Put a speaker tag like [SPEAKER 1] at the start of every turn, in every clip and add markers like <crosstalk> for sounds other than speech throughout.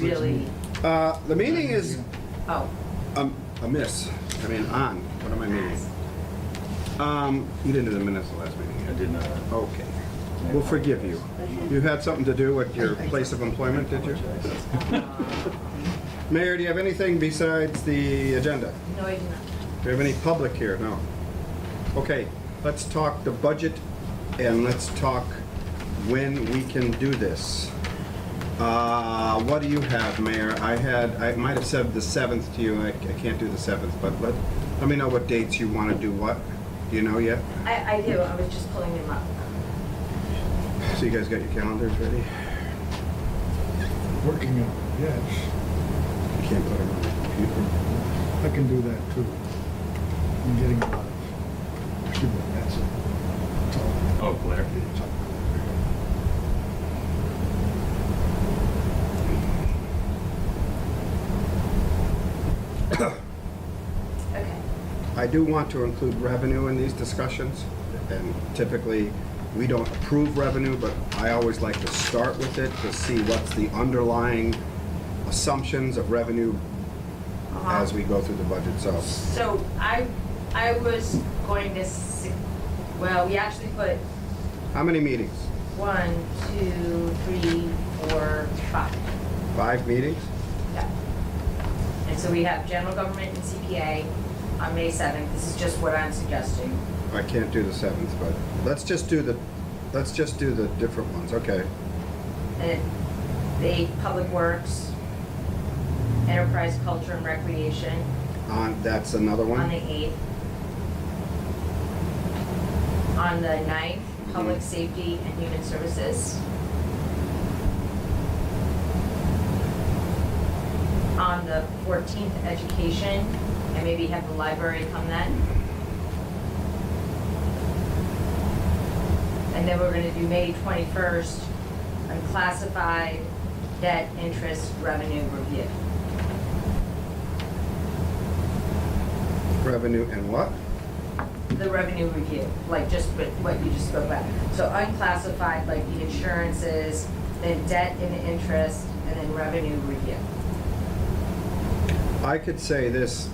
[SPEAKER 1] really,
[SPEAKER 2] Uh, the meeting is
[SPEAKER 1] oh,
[SPEAKER 2] um, amiss. I mean, on. What am I meaning? Um, you didn't do the minutes the last meeting.
[SPEAKER 3] I did not.
[SPEAKER 2] Okay. We'll forgive you. You had something to do with your place of employment, did you?
[SPEAKER 3] <laughs>
[SPEAKER 2] Mayor, do you have anything besides the agenda?
[SPEAKER 1] no, I do not.
[SPEAKER 2] Do you have any public here? No. Okay, let's talk the budget and let's talk when we can do this. Uh, what do you have, Mayor? I had, I might have said the seventh to you. I, I can't do the seventh, but let, let me know what dates you want to do what. Do you know yet? <laughs>
[SPEAKER 1] I, I do, I was just pulling them up.
[SPEAKER 2] So you guys got your calendars ready? You
[SPEAKER 4] Working on it, yes.
[SPEAKER 2] can't put them on the computer.
[SPEAKER 4] I can do that too. I'm getting a lot of, excuse me, that's it. It's all-
[SPEAKER 3] Oh, glare.
[SPEAKER 4] it's all-
[SPEAKER 1] Okay,
[SPEAKER 2] I do want to include revenue in these discussions, and typically, we don't approve revenue, but I always like to start with it to see what's the underlying assumptions of revenue
[SPEAKER 1] Uh-huh.
[SPEAKER 2] as we go through the budget, so.
[SPEAKER 1] so I, I was going to, s- well, we actually put
[SPEAKER 2] How many meetings?
[SPEAKER 1] one, two, three, four, five.
[SPEAKER 2] Five meetings?
[SPEAKER 1] Yeah. And so we have general government and CPA on May seventh, this is just what I'm suggesting.
[SPEAKER 2] I can't do the seventh, but let's just do the, let's just do the different ones, okay?
[SPEAKER 1] And the eighth, public works, enterprise, culture and recreation
[SPEAKER 2] On, that's another
[SPEAKER 1] on the
[SPEAKER 2] one?
[SPEAKER 1] eighth. On the ninth, public safety and human services. On the fourteenth, education, and maybe have the library come then. And then we're gonna do May twenty-first, unclassified debt interest revenue review.
[SPEAKER 2] Revenue and what?
[SPEAKER 1] the revenue review, like just what what you just spoke about. So unclassified, like the insurances, then debt and interest, and then revenue review.
[SPEAKER 2] I could say this,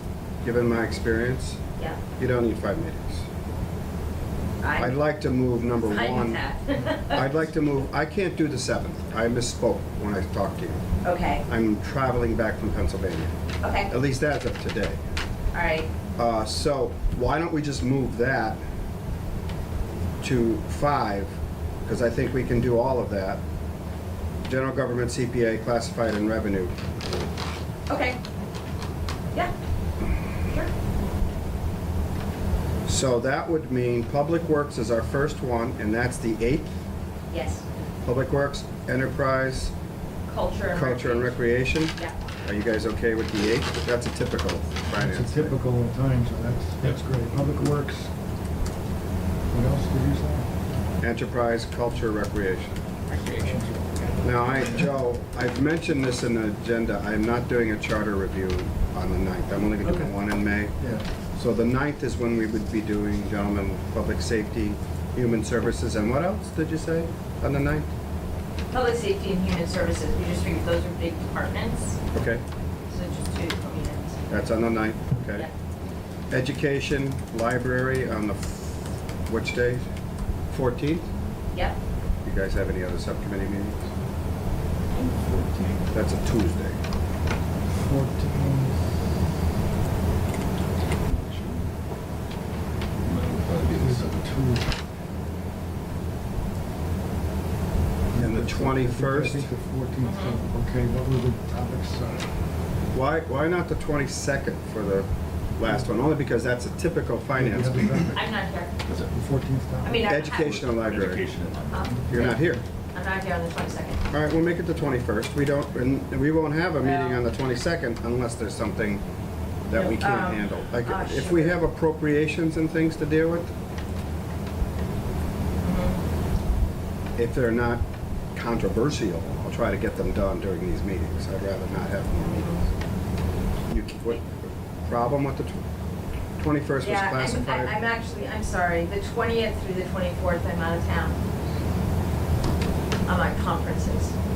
[SPEAKER 2] given my experience,
[SPEAKER 1] Yeah,
[SPEAKER 2] you don't need five meetings. I'd
[SPEAKER 1] I'm
[SPEAKER 2] like to move number
[SPEAKER 1] fine with
[SPEAKER 2] one.
[SPEAKER 1] that.
[SPEAKER 2] <laughs> I'd like to move, I can't do the seventh. I misspoke when I talked to you.
[SPEAKER 1] Okay,
[SPEAKER 2] I'm traveling back from Pennsylvania.
[SPEAKER 1] okay,
[SPEAKER 2] At least that's of today.
[SPEAKER 1] all right,
[SPEAKER 2] Uh, so why don't we just move that to five? Because I think we can do all of that. General government, CPA, classified and revenue.
[SPEAKER 1] okay. Yeah, sure.
[SPEAKER 2] So that would mean Public Works is our first one, and that's the eighth.
[SPEAKER 1] Yes,
[SPEAKER 2] Public Works, Enterprise,
[SPEAKER 1] culture and
[SPEAKER 2] Culture and
[SPEAKER 1] recreation.
[SPEAKER 2] Recreation.
[SPEAKER 1] Yeah,
[SPEAKER 2] Are you guys okay with the eighth? That's a typical finance.
[SPEAKER 4] It's a
[SPEAKER 2] thing.
[SPEAKER 4] typical in time, so that's, that's great. Public Works. What else did you say?
[SPEAKER 2] Enterprise, culture, recreation. Now, I, Joe, I've mentioned this in the agenda, I'm not doing a charter review on the ninth, I'm only gonna do
[SPEAKER 4] Okay.
[SPEAKER 2] one in May.
[SPEAKER 4] Yeah.
[SPEAKER 2] So the ninth is when we would be doing, gentlemen, public safety, human services, and what else did you say on the ninth?
[SPEAKER 1] public safety and human services, we just figured those are big departments,
[SPEAKER 2] Okay,
[SPEAKER 1] so just two components.
[SPEAKER 2] that's on the ninth, okay.
[SPEAKER 1] Yeah,
[SPEAKER 2] Education, library on the, f- which day? Fourteenth?
[SPEAKER 1] yeah,
[SPEAKER 2] You guys have any other subcommittee meetings? That's a Tuesday.
[SPEAKER 4] 14. Is it two?
[SPEAKER 2] And the
[SPEAKER 4] I think-
[SPEAKER 2] 21st?
[SPEAKER 4] I think the 14th, okay, what were the topics? Uh,
[SPEAKER 2] Why, why not the 22nd for the last one? Only because that's a typical finance
[SPEAKER 4] Yeah.
[SPEAKER 2] meeting.
[SPEAKER 1] I'm not here.
[SPEAKER 3] That's it.
[SPEAKER 4] The 14th topic?
[SPEAKER 1] I mean, I-
[SPEAKER 2] Educational library.
[SPEAKER 3] Education and library.
[SPEAKER 1] Huh?
[SPEAKER 2] You're not here.
[SPEAKER 1] I'm not here on the twenty-second.
[SPEAKER 2] All right, we'll make it the 21st. We don't, and we won't have a meeting on the 22nd unless there's something that we
[SPEAKER 1] Um,
[SPEAKER 2] can't handle. Like,
[SPEAKER 1] ah,
[SPEAKER 2] if we
[SPEAKER 1] shoot.
[SPEAKER 2] have appropriations and things to deal with,
[SPEAKER 1] Mm-hmm.
[SPEAKER 2] if they're not controversial, I'll try to get them done during these meetings. I'd rather not have more meetings. You, c- what, problem with the tw- 21st was
[SPEAKER 1] Yeah, I'm,
[SPEAKER 2] classified?
[SPEAKER 1] I- I'm actually, I'm sorry, the twentieth through the twenty-fourth, I'm out of town. I'm on conferences.